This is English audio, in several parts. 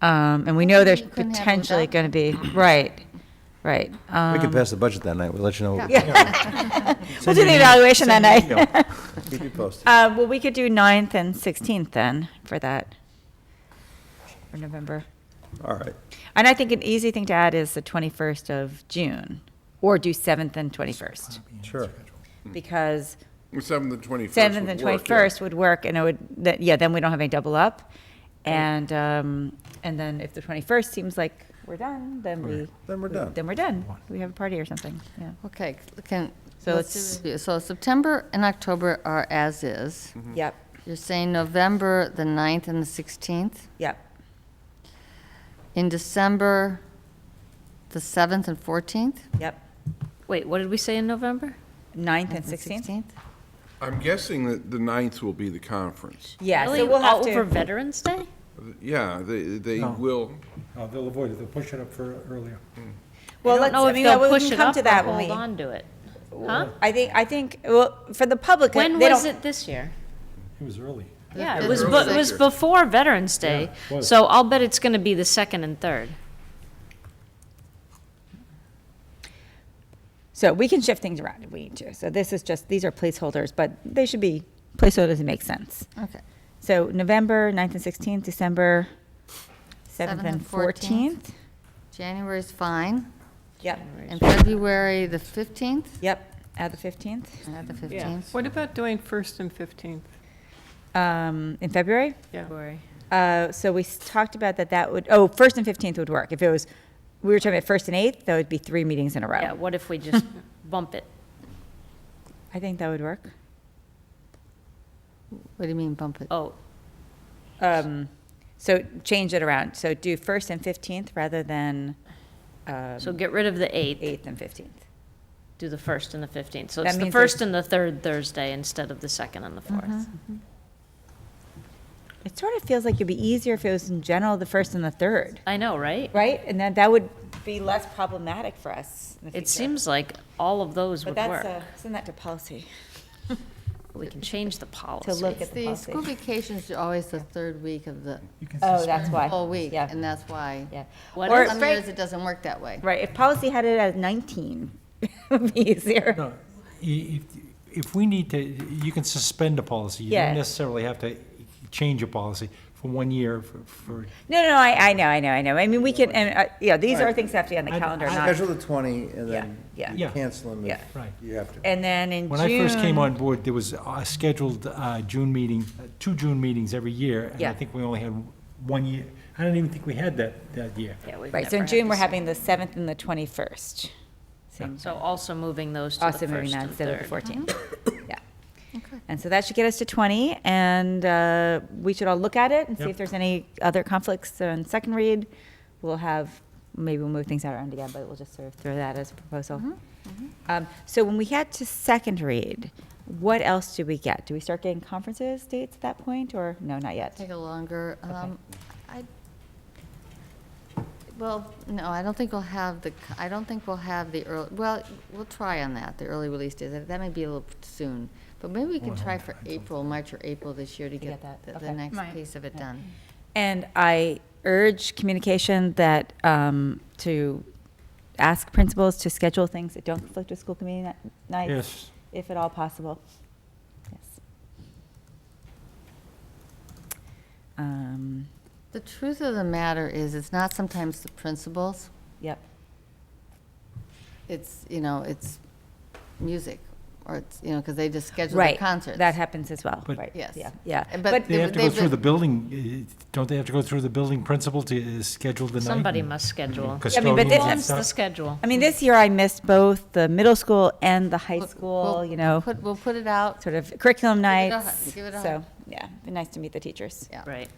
Um, and we know there's You couldn't have them potentially without going to be, right, right. We Um, could pass the budget that night, we'll let you know. We'll do the evaluation that night. Keep you posted. Uh, well, we could do 9th and 16th then for that, for November. All right. And I think an easy thing to add is the 21st of June, or do 7th and 21st, Sure. because Seventh and twenty-first. 7th and 21st would work, and it would, that- yeah, then we don't have any double up. And, um, and then if the 21st seems like we're done, then we. Then we're we- done. Then we're done. We have a party or something, yeah. Okay, can, So let's it's- do review. So September and October are as-is. Mm-hmm. Yep, You're saying November, the 9th and the 16th? yep. In December, the 7th and 14th? Yep. Wait, what did we say in November? 9th and 16th? I'm guessing that the ninth will be the conference. Yeah, Really? so we'll have All Over to, Veterans Day? Yeah, they, they No. will, Uh, They'll avoid it, they'll push it up for earlier. well, I don't let's, know I if mean, yeah, they'll we push can it come up to or that when hold we, on to it. Huh? I think, I think, well, for the public, When they was don't, it this year? It was early. Yeah, Yeah, it was, it bu- was it was earlier. before Veterans Day, Yeah, it was. so I'll bet it's gonna be the second and third. so we can shift things around if we need to. So this is just, these are placeholders, but they should be placeholders that make sense. Okay. So November 9th and 16th, December 7th Seventh and and 14th. 14th? January's fine. Yep, And February, the 15th? yep, add the 15th. Uh, The Yeah. 15th. What about doing first and 15th? Um, in February? Yeah. Uh, so we s- talked about that that would, oh, 1st and 15th would work. If it was, we were talking about 1st and 8th, that would be three meetings in a row. Yeah, what if we just bump it? I think that would work. What do you mean bump it? Oh, Um, so change it around. So do first and fifteenth rather than um, so get rid of the eighth, eighth and fifteenth. do the first and the fifteenth. So That it's the means Uh-huh. first there's- and the third Thursday instead of the second and the fourth. It sort of feels like it'd be easier if it was in general the first and the third, I know, right? right? And then that would be less problematic for us. in the It future. seems like all of those But would that's work. a, send that to policy We can change the to policy. look at the The school policy. vacation's are always the third week of the Oh, that's why. whole week, Yeah, and that's why. yeah. What Or- is- Some years it doesn't work that way. Right, if policy had it at nineteen, it would be easier. No, i- if, if we need to, you can suspend a policy. You Yeah. don't necessarily have to change a policy for one year for- for, No, no, no, I, I know, I know, I know. I mean, we can, and, uh, yeah, these are things that have to be on the I- calendar, I- not, Schedule the 20 and then Uh, Yeah, you yeah. cancel them if Yeah. right. you have to. and then in June. When I first came on board, there was a scheduled uh, June meeting, uh, two June meetings every year. And Yeah. I think we only had one year. I don't even think we had that, that year. Yeah, we've Right, so never in had June, the we're same. having the 7th and the 21st. Same, So also moving those to the also first moving on and instead of third. Uh-huh. the 14th. Yeah. And so that should get us to 20, and uh, we should all look at it and see Yep. if there's any other conflicts on second read. We'll have, maybe we'll move things around again, but we'll just sort of throw that as a proposal. Mm-hmm. Um, So when we get to second read, what else do we get? Do we start getting conferences dates at that point, or, no, not yet? Take a longer, um, I, well, no, I don't think we'll have the, c- I don't think we'll have the early, well, we'll try on that, the early release days. That may be a little soon. But maybe we can try for April, March or April this year to get get that, the- the okay. next piece of it done. And I urge communication that, um, to ask principals to schedule things that don't conflict with school committee ni- nights, Yes. if at all possible. Yes. Um, The truth of the matter is, it's not sometimes the principals, yep, it's, you know, it's music, or it's, you know, because they just schedule their right. concerts. That happens as well, But- right? Yes. Yeah, yeah. And But, They have to go They've through been- the building, uh, don't they have to go through the building principal to uh, schedule the Mm-hmm. night? Somebody and must schedule. but Custodian this- and Owns the stuff? schedule. I mean, this year I missed both the middle school and the high We'll- school, we'll you know, put- We'll put it out, sort of curriculum it a hu- nights. give it a hu- So, yeah, it'd be nice to meet the teachers. yeah. Right.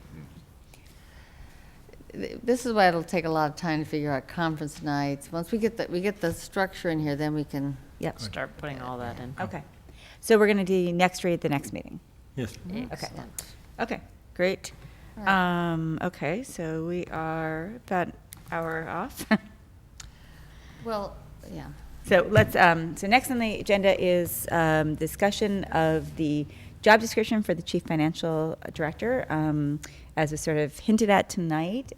th- this is why it'll take a lot of time to figure out conference nights. Once we get the, we get the structure in here, then we can, Yep, Start putting all that in. okay. So we're going to do next read, the next meeting. Yes. Okay. Excellent. Okay, great. Um, okay, so we are about an hour off. well, yeah. So let's, um, so next on the agenda is, um, discussion of the job description for the chief financial director. Um, as was sort of hinted at tonight,